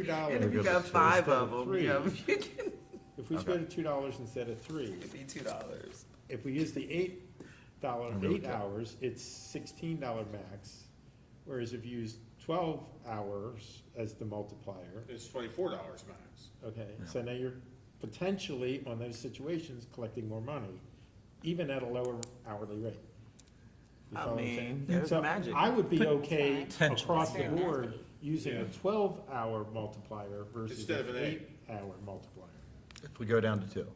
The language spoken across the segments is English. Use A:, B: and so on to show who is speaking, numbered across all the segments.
A: two dollars.
B: And if you
C: Because
B: got
C: it's
B: five
A: instead
B: of
A: of
B: them,
A: three.
B: you know, you can
A: If we split it two dollars instead of three,
B: it'd be two dollars.
A: if we use the eight dollar,
C: really
A: eight
C: good.
A: hours, it's sixteen dollar max. Whereas if you use twelve hours as the multiplier,
D: It's twenty-four dollars max.
A: okay, so now you're potentially on those situations collecting more money, even at a lower hourly rate. You
B: I
A: follow what I'm
B: mean,
A: saying?
B: there's
A: So
B: magic.
A: I would be okay
C: Potentially.
A: across the
E: Fair enough.
A: board using a
D: Yeah.
A: twelve hour multiplier versus
D: Instead of
A: an
D: an eight.
A: eight hour multiplier.
C: If we go down to two.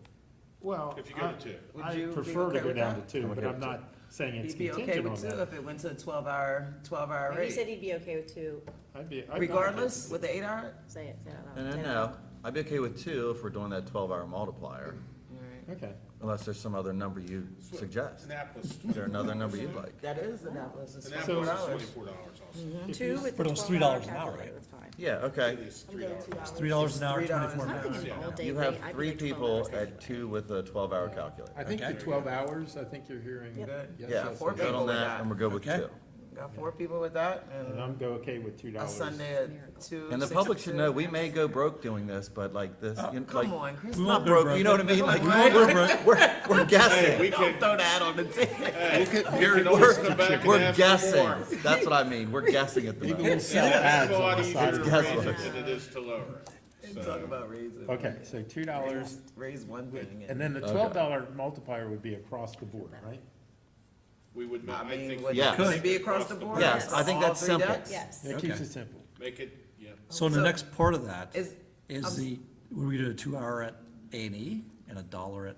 A: Well.
D: If you go to
A: I-
D: two.
B: Would
A: I
B: you be
A: prefer
B: okay
A: to go
B: with
A: down
B: that?
A: to two,
C: I'm
A: but
C: okay
A: I'm
C: with
A: not saying it's
B: He'd be okay
A: contingent on
B: with two
A: that.
B: if it went to a twelve hour, twelve hour
E: He said
B: rate.
E: he'd be okay with two,
A: I'd be- I'd not-
B: Regardless, with the eight hour?
E: say it, say it out
C: No,
E: loud.
C: no,
E: Say it
C: no.
E: out
C: I'd be okay with two if we're doing that twelve hour multiplier,
A: Okay,
C: unless there's some other number you suggest.
D: Annapolis,
C: Is there another number you'd like?
B: That is Annapolis, it's
A: So-
B: four
D: Annapolis is
B: dollars.
D: twenty-four dollars also.
E: loud.
A: If
E: Two
A: you-
E: with
F: But
E: the
F: it was
E: twelve hour
F: $3 an hour,
E: calculator,
F: right?
E: it's fine.
C: Yeah, okay.
D: It is
E: I'm
D: three
E: going
D: dollars.
E: two hours.
F: Three dollars an hour,
B: Three dollars
F: twenty-four
B: an
E: I'm
B: hour.
F: minutes.
E: thinking an all day
C: You
E: rate.
C: have
E: I'd
C: three
E: like 12
C: people
E: hours
C: at
E: anyway.
C: two with a twelve hour calculator.
G: I think the
C: okay?
G: twelve hours, I think you're hearing.
E: Yep.
B: Good.
G: Yes,
C: Yeah,
G: yes,
C: we're
B: four
C: good
B: people
C: on
B: with
C: that
B: that.
C: and we're good with
F: Okay.
C: two.
B: Got four people with that
A: and
B: and
A: I'm go okay with two
B: a
A: dollars.
B: Sunday at two.
C: And the
B: six
C: public
B: to
C: should
B: two.
C: know, we may go broke doing this, but like this, you know, like,
B: Come on, Chris,
F: We
B: don't
F: won't
C: not
F: go
C: broke, you know what I mean? Like, we're, we're, we're
D: Hey, we
C: guessing.
D: can,
B: throw that on the table.
D: hey, we can always come back
C: We're, we're
D: and ask for
C: guessing.
D: more.
C: That's what I mean. We're guessing at the moment.
D: It's a lot easier to raise
C: guesswork.
D: it than it is to lower it.
B: And talk
D: So,
B: about raising.
A: Okay, so two dollars,
B: Raise one thing
A: and
B: and
A: then the twelve dollar multiplier would be across the board, right?
D: we would
B: I
D: not, I
B: mean,
D: think,
B: would
C: Yeah.
B: it could it be across the board?
C: Yes, I think
B: All
C: that's
B: three
C: simple.
B: decks?
E: Yes.
A: That keeps
F: Okay.
A: it simple.
D: make it, yeah.
F: So in the
B: So-
F: next part of that
B: Is,
F: is the, we're gonna do a two hour at A and E and a dollar at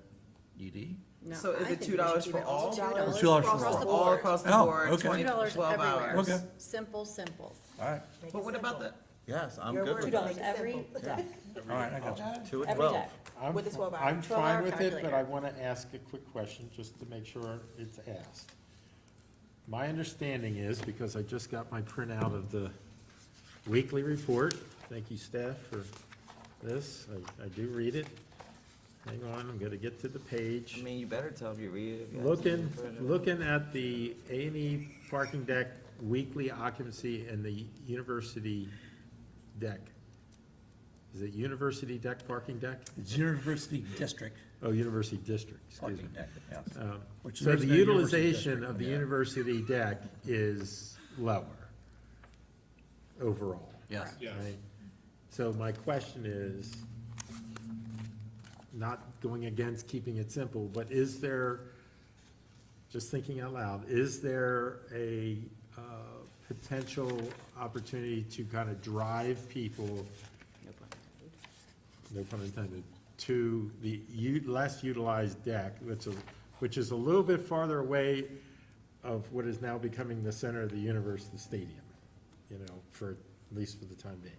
F: UD?
E: No,
B: So is
E: I
B: it
E: think we
B: $2
E: should
B: for
E: do it
B: all?
E: $2
F: $2 for
E: across
F: all.
E: the
B: all
E: board.
B: across the
F: Oh,
B: board,
F: okay.
B: twenty,
E: $2
B: twelve
E: everywhere.
B: hours.
F: Okay.
E: Simple, simple.
F: All right,
E: Make
B: But
E: it
B: what about the,
E: simple.
C: Yes, I'm
E: Your
C: good
E: word,
C: with
E: $2
C: that.
E: every deck,
F: all right, I got you.
C: Two at
E: every
C: twelve.
E: deck.
A: I'm
E: With a
A: fi-
E: 12 hour-
A: I'm
E: 12
A: fine
E: hour
A: with it, but
E: calculator.
A: I want to ask a quick question, just to make sure it's asked. My understanding is, because I just got my printout of the weekly report, thank you staff for this, I, I do read it. Hang on, I'm gonna get to the
B: I
A: page.
B: mean, you better tell if you read it. if you have
A: Looking,
B: something to put it.
A: looking at the A and E parking deck weekly occupancy and the university deck. Is it university deck, parking deck?
F: It's University District
A: Oh, University District, excuse me.
F: parking deck, yes.
A: Um,
F: Which
A: So
F: there's
A: the
F: no university
A: utilization
F: district,
A: of the
F: yeah.
A: university deck is lower overall,
F: Yes.
D: Yes.
A: right? So my question is, not going against keeping it simple, but is there, just thinking out loud, is there a uh, potential opportunity to kind of drive people no pun intended, to the u- less utilized deck, which is, which is a little bit farther away of what is now becoming the center of the universe, the stadium, you know, for, at least for the time being.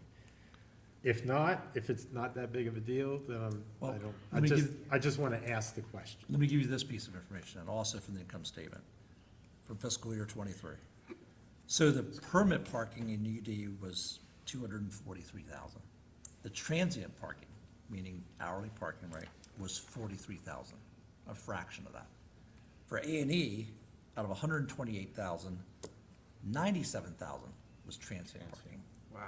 A: If not, if it's not that big of a deal, then I'm, I
F: Well,
A: don't, I
F: let me
A: just,
F: give-
A: I just want to ask the question.
F: Let me give you this piece of information, and also from the income statement, for fiscal year twenty-three. So the permit parking in UD was two hundred and forty-three thousand. The transient parking, meaning hourly parking rate, was forty-three thousand, a fraction of that. For A and E, out of 128,000, 97,000 was transient parking.
B: Wow.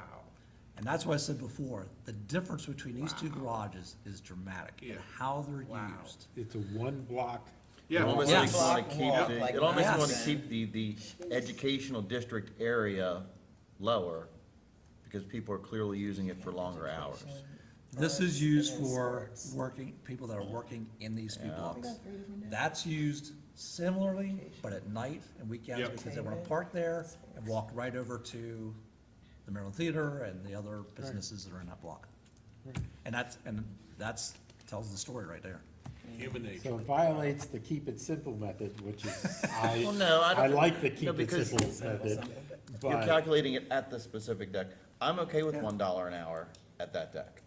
F: And that's why I said before, the difference between these two garages is dramatic in
D: Yeah.
F: how they're
B: Wow.
F: used.
A: It's a one-block,
C: It
D: Yeah,
C: almost
F: Yeah.
C: makes you want
B: Block
C: to keep,
B: walk
C: the-
B: like
C: it almost
F: that.
C: want to
B: Yes.
C: keep the, the educational district area lower because people are clearly using it for longer hours.
F: This is used for working, people that are working in these few blocks. That's used similarly, but at night and weekends,
D: Yep.
F: because they wanna park there and walk right over to the Maryland Theater and the other businesses that are in that block. And that's, and that's, tells the story right there.
D: human nature.
A: so it violates the keep it simple method, which is, I,
C: Well, no, I don't-
A: I like the keep
C: no,
A: it
C: because-
A: simple method,
C: You're
A: but,
C: calculating it at the specific deck. I'm okay with one dollar an hour at that deck.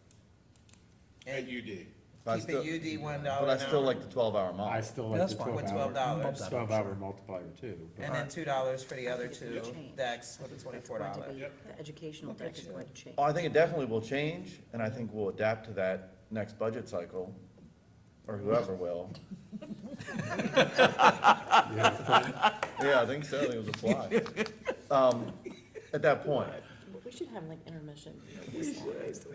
D: At UD.
C: But I
B: Keep
C: still-
B: it UD one dollar
C: But I
B: an
C: still
B: hour.
C: like the twelve hour model.
A: I still like
F: That's
A: the
F: fine.
A: twelve
F: With
A: hour.
B: $12.
A: Twelve hour multiplier too. but-
B: And then two dollars for the other two
E: Change.
B: decks with the twenty-four
E: Going to
B: dollar.
E: be- The educational deck is going to change.
C: Oh, I think it definitely will change, and I think we'll adapt to that next budget cycle, or whoever will. Yeah, I think so, I think it was a fly. Um, at that point,
E: We should have like intermission.